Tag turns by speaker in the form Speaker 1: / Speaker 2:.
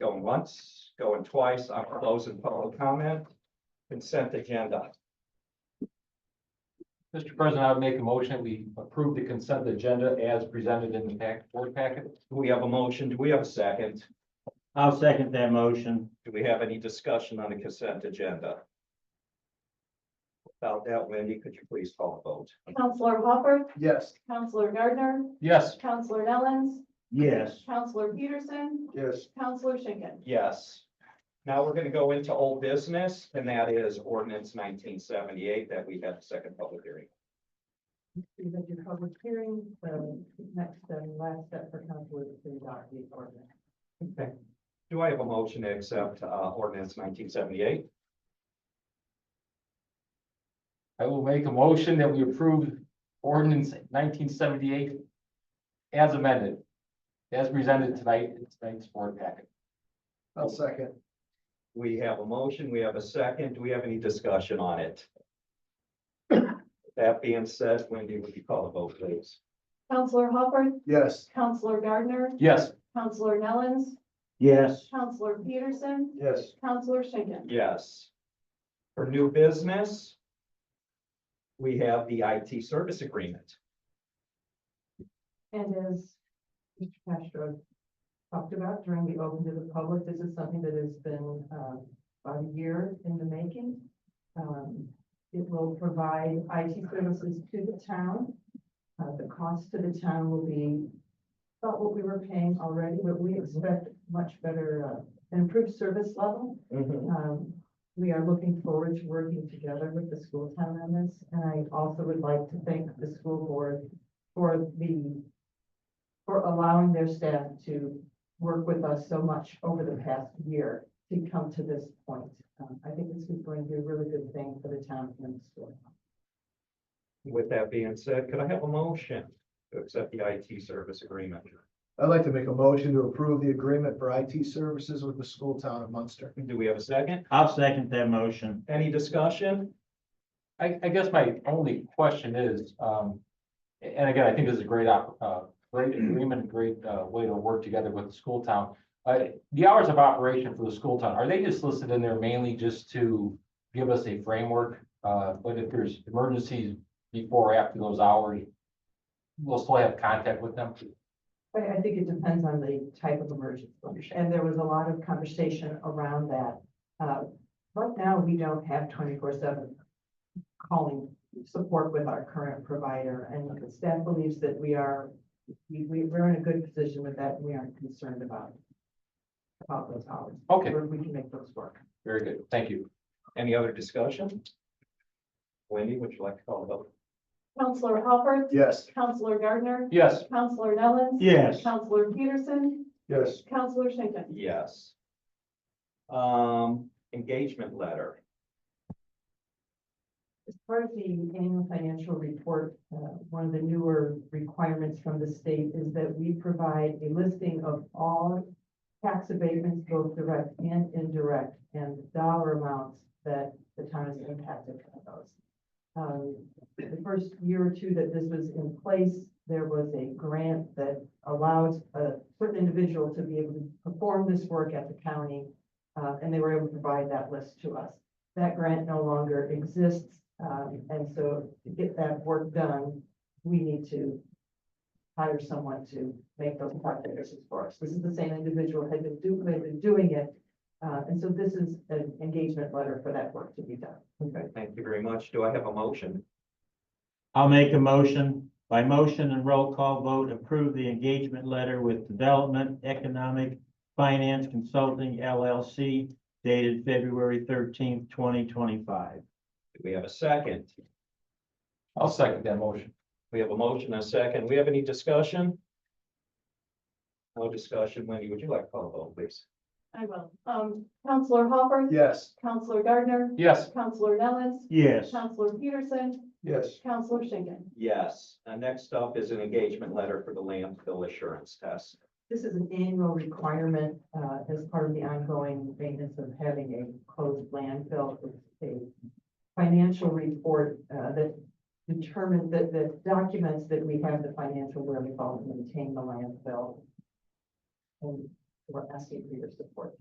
Speaker 1: Going once, going twice, I'm closing public comment. Consent agenda.
Speaker 2: Mr. President, I would make a motion, we approve the consent agenda as presented in the pack, board packet.
Speaker 1: Do we have a motion? Do we have a second?
Speaker 3: I'll second that motion.
Speaker 1: Do we have any discussion on the consent agenda? Without that, Wendy, could you please call a vote?
Speaker 4: Counselor Hopper,
Speaker 5: Yes.
Speaker 4: Counselor Gardner,
Speaker 2: Yes.
Speaker 4: Counselor Nellens,
Speaker 3: Yes,
Speaker 4: Counselor Peterson,
Speaker 5: Yes.
Speaker 4: Counselor Schinkin.
Speaker 1: Yes. Now we're gonna go into old business, and that is ordinance nineteen seventy-eight that we had the second public hearing.
Speaker 6: We've been to public hearing, so next and last step for council is to adopt the ordinance.
Speaker 1: Do I have a motion to accept, uh, ordinance nineteen seventy-eight?
Speaker 2: I will make a motion that we approve ordinance nineteen seventy-eight as amended, as presented tonight in tonight's board packet.
Speaker 5: I'll second.
Speaker 1: We have a motion, we have a second, do we have any discussion on it? That being said, Wendy, would you call the vote, please?
Speaker 4: Counselor Hopper,
Speaker 5: Yes.
Speaker 4: Counselor Gardner,
Speaker 2: Yes.
Speaker 4: Counselor Nellens,
Speaker 3: yes,
Speaker 4: Counselor Peterson,
Speaker 5: Yes.
Speaker 4: Counselor Schinkin.
Speaker 1: Yes. For new business, we have the IT service agreement.
Speaker 6: And as Mr. Castro talked about during the open to the public, this is something that has been um, about a year in the making. Um, It will provide IT services to the town. Uh, The cost to the town will be about what we were paying already, but we expect much better, uh, improved service level. Um, we are looking forward to working together with the school town on this, and I also would like to thank the school board for the, for allowing their staff to work with us so much over the past year to come to this point. Um, I think this is going to be a really good thing for the town and the school.
Speaker 1: With that being said, could I have a motion to accept the IT service agreement?
Speaker 5: I'd like to make a motion to approve the agreement for IT services with the school town of Munster.
Speaker 1: Do we have a second?
Speaker 3: I'll second that motion.
Speaker 1: Any discussion?
Speaker 2: I, I guess my only question is, um, and again, I think this is a great, op- uh, great agreement, a great, uh, way to work together with the school town. Uh, the hours of operation for the school town, are they just listed in there mainly just to give us a framework? Uh, but if there's emergencies before or after those hours, we'll still have contact with them?
Speaker 6: But I think it depends on the type of emergency, and there was a lot of conversation around that. Uh, Right now, we don't have twenty-four seven calling support with our current provider, and the staff believes that we are, we, we- we're in a good position with that, and we aren't concerned about about those hours,
Speaker 2: Okay,
Speaker 6: or we can make those work.
Speaker 2: very good, thank you.
Speaker 1: Any other discussion? Wendy, would you like to call the vote?
Speaker 4: Counselor Hopper,
Speaker 5: Yes.
Speaker 4: Counselor Gardner,
Speaker 2: Yes,
Speaker 4: Counselor Nellens,
Speaker 3: Yes,
Speaker 4: Counselor Peterson,
Speaker 5: Yes.
Speaker 4: Counselor Schinkin.
Speaker 1: Yes. Um, engagement letter.
Speaker 6: As part of the annual financial report, uh, one of the newer requirements from the state is that we provide a listing of all tax abatements, both direct and indirect, and the dollar amounts that the town is impacted from those. Um, The first year or two that this was in place, there was a grant that allowed a certain individual to be able to perform this work at the county, uh, and they were able to provide that list to us that grant no longer exists. um, And so to get that work done, we need to hire someone to make those calculations for us. This is the same individual had been do- had been doing it. uh, And so this is an engagement letter for that work to be done.
Speaker 1: Okay, thank you very much. Do I have a motion?
Speaker 3: I'll make a motion. By motion and roll call vote, approve the engagement letter with Development Economic Finance Consulting LLC dated February thirteenth, twenty twenty-five.
Speaker 1: Do we have a second?
Speaker 2: I'll second that motion.
Speaker 1: We have a motion, and a second. We have any discussion? No discussion. Wendy, would you like to call the vote, please?
Speaker 4: I will. Um, Counselor Hopper,
Speaker 5: Yes.
Speaker 4: Counselor Gardner,
Speaker 2: Yes,
Speaker 4: Counselor Nellens,
Speaker 3: Yes,
Speaker 4: Counselor Peterson,
Speaker 5: Yes.
Speaker 4: Counselor Schinkin.
Speaker 1: Yes. And next up is an engagement letter for the landfill assurance test.
Speaker 6: This is an annual requirement uh, as part of the ongoing maintenance of having a closed landfill. It's a financial report uh, that determines, that, that documents that we have the financial wherewithal to maintain the landfill. And We're asking for your support.